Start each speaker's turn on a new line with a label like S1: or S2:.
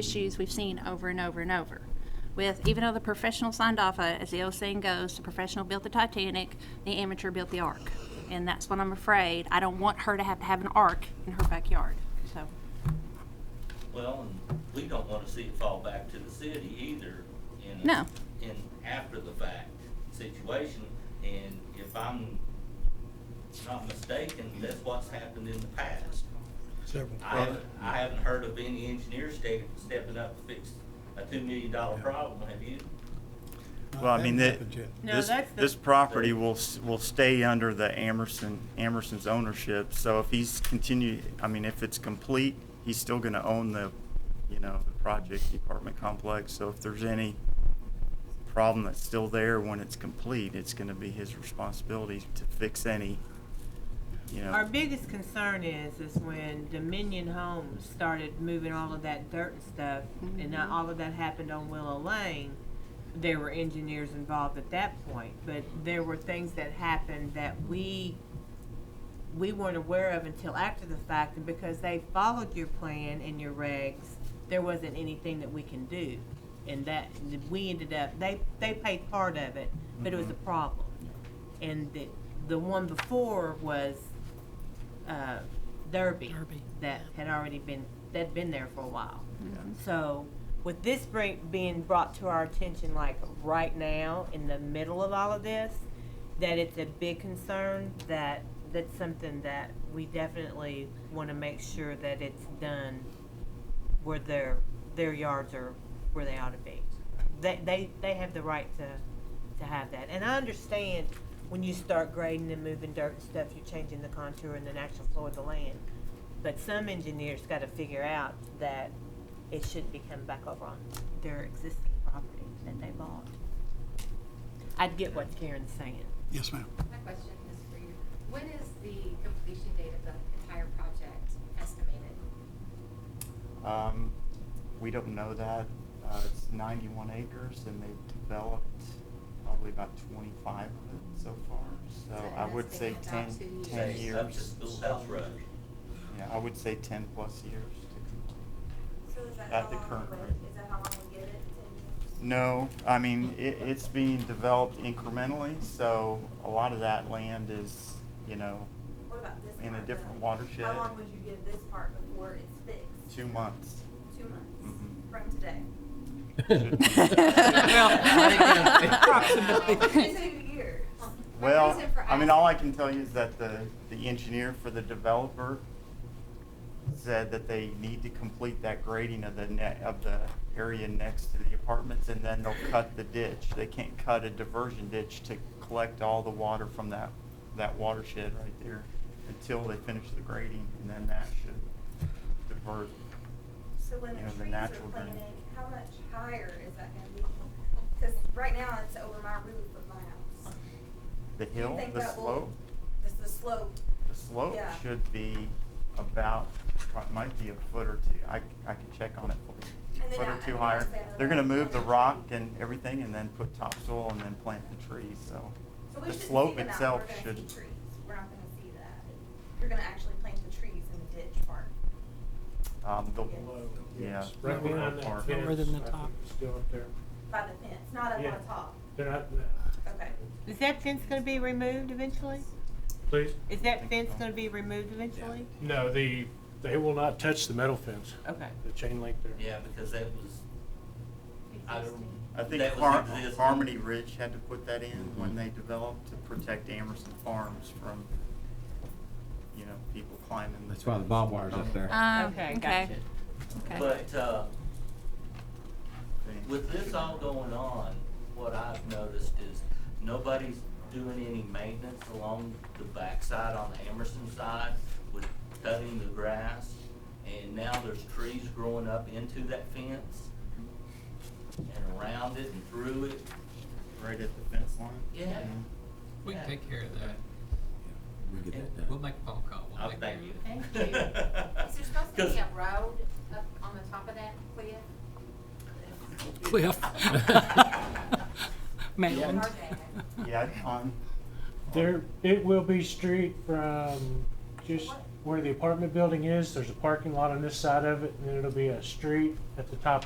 S1: issues we've seen over and over and over. With, even though the professional signed off, on it, as the old saying goes, the professional built the Titanic, the amateur built the ark. And that's what I'm afraid, I don't want her to have to have an ark in her backyard, so.
S2: Well, and we don't want to see it fall back to the city either in. a-
S1: No.
S2: In after the fact situation, and if I'm not mistaken, that's what's happened in the past.
S3: Several.
S2: I haven't, I haven't heard of any engineer stepping, stepping up to fix a two million dollar problem, have you?
S4: Well, I mean,
S3: That
S4: that,
S3: hasn't happened
S5: No,
S4: this,
S5: that's the-
S4: this property will, s- will stay under the Amerson, Amerson's ownership. So if he's continue, I mean, if it's complete, he's still gonna own the, you know, the project, the apartment complex. So if there's any problem that's still there when it's complete, it's gonna be his responsibility to fix any, you know.
S5: Our biggest concern is, is when Dominion Homes started moving all of that dirt and stuff, and not all of that happened on Willow Lane, there were engineers involved at that point, but there were things that happened that we, we weren't aware of until after the fact, and because they followed your plan and your regs, there wasn't anything that we can do. And that, we ended up, they, they paid part of it, but it was a problem. And the, the one before was, uh, Derby. That had already been, that'd been there for a while.
S4: Mm-hmm.
S5: So with this bring, being brought to our attention like right now, in the middle of all of this, that it's a big concern, that, that's something that we definitely wanna make sure that it's done where their, their yards are where they ought to be. They, they, they have the right to, to have that. And I understand when you start grading and moving dirt and stuff, you're changing the contour and the natural flow of the land. But some engineers gotta figure out that it should be coming back over on their existing property that they bought. I'd get what Karen's saying.
S3: Yes, ma'am.
S6: My question is for you. When is the completion date of the entire project estimated?
S4: Um, we don't know that. Uh, it's ninety-one acres and they've developed probably about twenty-five of it so far. So
S6: So
S4: I would
S6: that's
S4: say
S6: been
S4: ten,
S6: about two
S4: ten
S2: Say, Up to
S4: years.
S2: Schoolhouse Road.
S4: Yeah, I would say ten plus years to complete.
S7: So is that
S4: At
S7: how
S4: the
S7: long
S4: current
S7: we wait?
S4: rate.
S7: Is that how long we get it? Ten years?
S4: No, I mean, it, it's being developed incrementally, so a lot of that land is, you know,
S7: What about this part?
S4: in a
S7: though?
S4: different watershed.
S7: How long would you give this part before it's fixed?
S4: Two months.
S7: Two months
S4: Mhm.
S7: from today? Two years.
S4: Um,
S6: My
S4: Well,
S6: reason for
S4: I mean, all I
S6: asking-
S4: can tell you is that the, the engineer for the developer said that they need to complete that grading of the net, of the area next to the apartments, and then they'll cut the ditch. They can't cut a diversion ditch to collect all the water from that, that watershed right there until they finish the grading, and then that should divert.
S7: So when
S4: You know,
S7: the
S4: the
S7: trees are
S4: natural drain.
S7: planted, how much higher is that gonna be? Cause right now it's over my roof of my house.
S4: The
S7: Do you
S4: hill,
S7: think
S4: the
S7: that will-
S4: slope,
S7: It's the slope.
S4: the slope
S7: Yeah.
S4: should be about, might be a foot or two. I, I can check on it for you.
S7: And then
S4: foot
S7: I-
S4: or
S7: I
S4: two
S7: think
S4: higher.
S7: that's better
S4: They're gonna
S7: than
S4: move the
S7: planting
S4: rock
S7: trees.
S4: and everything and then put topsoil and then plant the trees, so.
S7: So we
S4: The
S7: should see
S4: slope
S7: that.
S4: itself
S7: We're gonna
S4: should,
S7: see trees. We're not gonna see that. You're gonna actually plant the trees in the ditch part.
S4: um, the, yeah.
S8: Yes,
S4: the
S8: Right behind
S4: park.
S8: that fence, I
S9: than the top.
S8: think it's still up there.
S7: By the fence, not up on
S8: Yeah.
S7: the top.
S8: They're not, uh,
S7: Okay.
S5: Is that fence gonna be removed eventually?
S8: please,
S5: Is that fence gonna be removed eventually?
S8: no, the, they will not touch the metal fence,
S5: Okay.
S8: the chain link there.
S2: Yeah, because that was, I don't.
S4: I think
S2: that was
S4: Har-
S2: existing.
S4: Harmony Ridge had to put that in when they developed to protect Amerson Farms from, you know, people climbing.
S9: That's why the barbed wire's up there.
S1: Um,
S5: Okay,
S1: okay,
S5: gotcha.
S1: okay.
S2: But, uh,
S4: thing.
S2: With this all going on, what I've noticed is nobody's doing any maintenance along the backside on the Emerson side with cutting the grass. And now there's trees growing up into that fence and around it and through it.
S4: Right at the fence line.
S2: Yeah.
S10: We can take care of that.
S9: We get that
S10: We'll
S9: done.
S10: make a phone call. We'll
S2: I'll
S10: take care
S2: thank
S10: of
S2: you.
S10: it.
S6: Thank you. Is there supposed to
S2: 'Cause-
S6: be a road up on the top of that cliff?
S9: Cliff. Mountain.
S6: Or that?
S4: Yeah, on.
S8: There, it will be street from just
S6: What-
S8: where the apartment building is, there's a parking lot on this side of it, and then it'll be a street at the top